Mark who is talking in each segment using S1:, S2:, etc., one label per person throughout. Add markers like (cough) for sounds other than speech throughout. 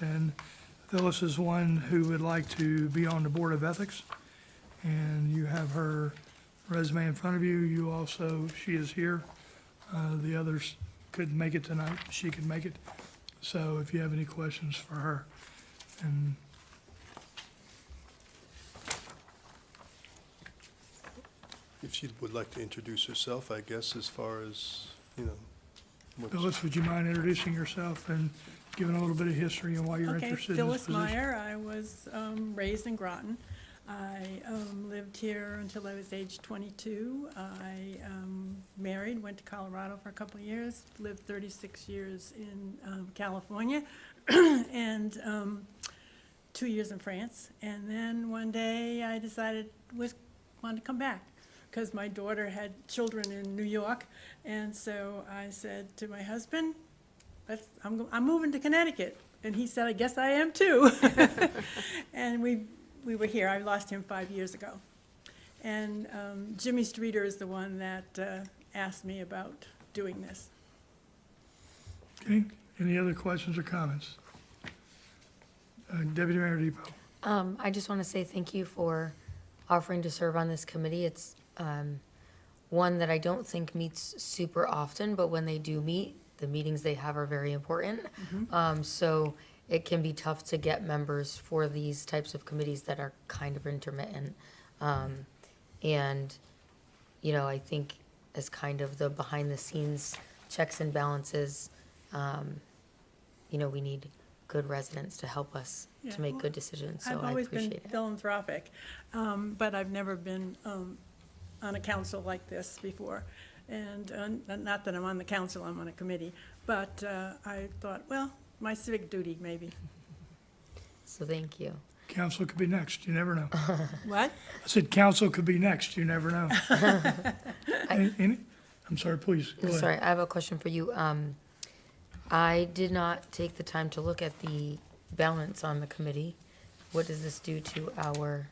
S1: and Phyllis is one who would like to be on the Board of Ethics. And you have her resume in front of you. You also, she is here. Uh, The others couldn't make it tonight. She could make it. So if you have any questions for her, and
S2: If she would like to introduce herself, I guess, as far as, you know, what,
S1: Phyllis, would you mind introducing yourself and giving a little bit of history and why you're
S3: Okay,
S1: interested in this
S3: Phyllis
S1: position?
S3: Meyer, I was um, raised in Groton. I um, lived here until I was age 22. I um, married, went to Colorado for a couple of years, lived 36 years in um, California, (clears throat) and um, two years in France. And then one day I decided was, wanted to come back because my daughter had children in New York. And so I said to my husband, that's, I'm, go- I'm moving to Connecticut. And he said, I guess I am
S4: (laughs)
S3: too. and we, we were here. I lost him five years ago. And um, Jimmy Streeter is the one that uh, asked me about doing this.
S1: Okay, any other questions or comments? Uh, Deputy Mayor Depot.
S5: Um, I just want to say thank you for offering to serve on this committee. It's, um, one that I don't think meets super often, but when they do meet, the meetings they have are very important.
S3: Mm-hmm.
S5: Um, so it can be tough to get members for these types of committees that are kind of intermittent. Um, and, you know, I think as kind of the behind the scenes checks and balances, um, you know, we need good residents to help us
S3: Yeah,
S5: to make
S3: well,
S5: good decisions, so
S3: I've
S5: I
S3: always been
S5: appreciate it.
S3: philanthropic, um, but I've never been um, on a council like this before. And uh, not that I'm on the council, I'm on a committee, but uh, I thought, well, my civic duty
S4: (laughs)
S3: maybe.
S5: So thank you.
S1: Council could be next, you never know. I
S3: What?
S1: said council could be next, you never know. Any- any- I'm sorry, please, go ahead.
S5: Sorry, I have a question for you. Um, I did not take the time to look at the balance on the committee. What does this do to our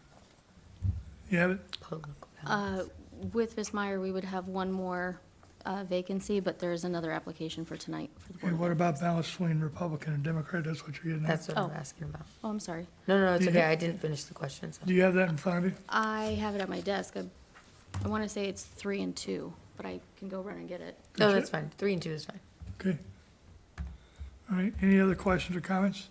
S1: You have it?
S5: political balance?
S6: Uh, With Ms. Meyer, we would have one more uh, vacancy, but there is another application for tonight for the Board
S1: And
S6: of
S1: what
S6: Ed.
S1: about balance between Republican and Democrat, that's what you're getting at?
S5: That's what I'm
S6: oh.
S5: asking about.
S6: Oh, I'm sorry.
S5: No, no, it's
S1: Do you
S5: okay.
S1: have-
S5: I didn't finish the question, so.
S1: Do you have that in front of you?
S6: I have it at my desk. I- I want to say it's three and two, but I can go run and get it.
S5: No, that's fine. Three and two is fine.
S1: Okay. All right, any other questions or comments?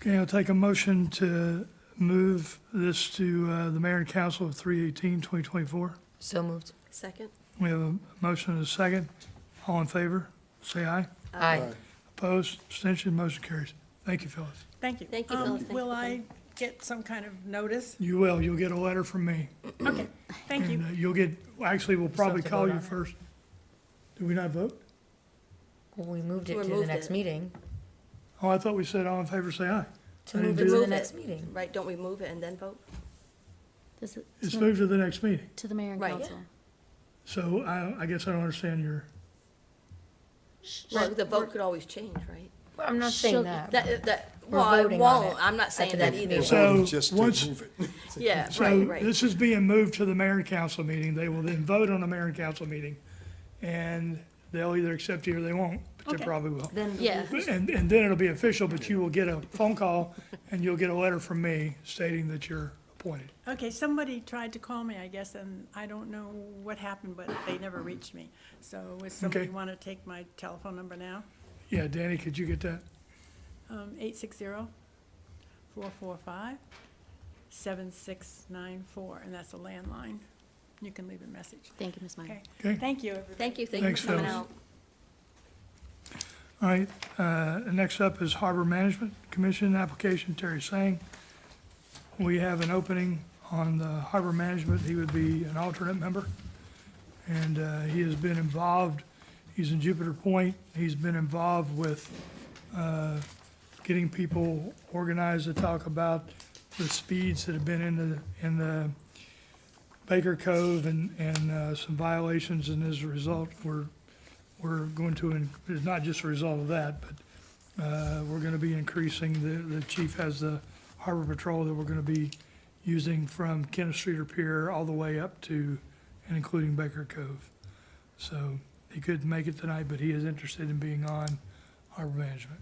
S1: Okay, I'll take a motion to move this to uh, the mayor and council of 3/18/2024.
S5: So moved.
S4: Second?
S1: We have a motion and a second. All in favor, say aye.
S5: Aye.
S1: Opposed, abstention, motion carries. Thank you, Phyllis.
S3: Thank you.
S4: Thank you,
S3: Um,
S4: Phyllis. Thank you
S3: Will
S4: for
S3: I
S4: coming.
S3: get some kind of notice?
S1: You will, you'll get a letter from me.
S3: Okay, thank
S1: And (clears throat)
S3: you.
S1: uh, you'll get, actually, we'll probably
S5: to
S1: call
S5: vote
S1: you
S5: on it.
S1: first. Did we not vote?
S5: Well, we moved it
S4: We
S5: to the
S4: moved
S5: next
S4: it.
S5: meeting.
S1: Oh, I thought we said all in favor, say aye.
S5: To
S1: I didn't
S5: move
S1: do
S5: it
S1: that.
S5: to the
S4: Move it.
S5: next meeting.
S4: Right, don't we move it and then vote?
S6: This is
S1: It's
S6: to-
S1: moved to the next meeting.
S6: to the mayor and
S4: Right.
S6: council.
S1: So I, I guess I don't understand your,
S4: Well, the vote could always change, right?
S5: Well, I'm not
S6: She'll-
S5: saying that. but-
S4: That, that,
S5: We're
S4: well, I
S5: voting on
S4: won't,
S5: it
S4: I'm not saying that
S5: next
S4: either.
S5: meeting.
S1: So-
S2: just to
S1: once-
S2: move it.
S4: Yeah,
S1: so
S4: right, right.
S1: this is being moved to the mayor and council meeting. They will then vote on the mayor and council meeting. And they'll either accept you or they won't, but they
S3: Okay.
S1: probably will.
S5: Then
S6: Yeah.
S1: And, and then it'll be official, but you will get a phone call and you'll get a letter from me stating that you're appointed.
S3: Okay, somebody tried to call me, I guess, and I don't know what happened, but they never reached me. So would somebody
S1: Mm-hmm. Okay.
S3: want to take my telephone number now?
S1: Yeah, Danny, could you get that?
S3: Um, eight six zero four four five seven six nine four, and that's a landline. You can leave a message.
S6: Thank you, Ms. Meyer.
S3: Okay,
S1: Okay.
S3: thank you, everybody.
S4: Thank you, thank you
S1: Thanks,
S4: for coming
S1: Phyllis.
S4: out.
S1: All right, uh, next up is Harbor Management Commission application, Terry Sang. We have an opening on the Harbor Management, he would be an alternate member. And uh, he has been involved, he's in Jupiter Point, he's been involved with uh, getting people organized to talk about the speeds that have been in the, in the Baker Cove and, and uh, some violations, and as a result, we're we're going to, in- it's not just a result of that, but uh, we're going to be increasing, the, the chief has the harbor patrol that we're going to be using from Kenneth Streeter Pier all the way up to and including Baker Cove. So he couldn't make it tonight, but he is interested in being on harbor management.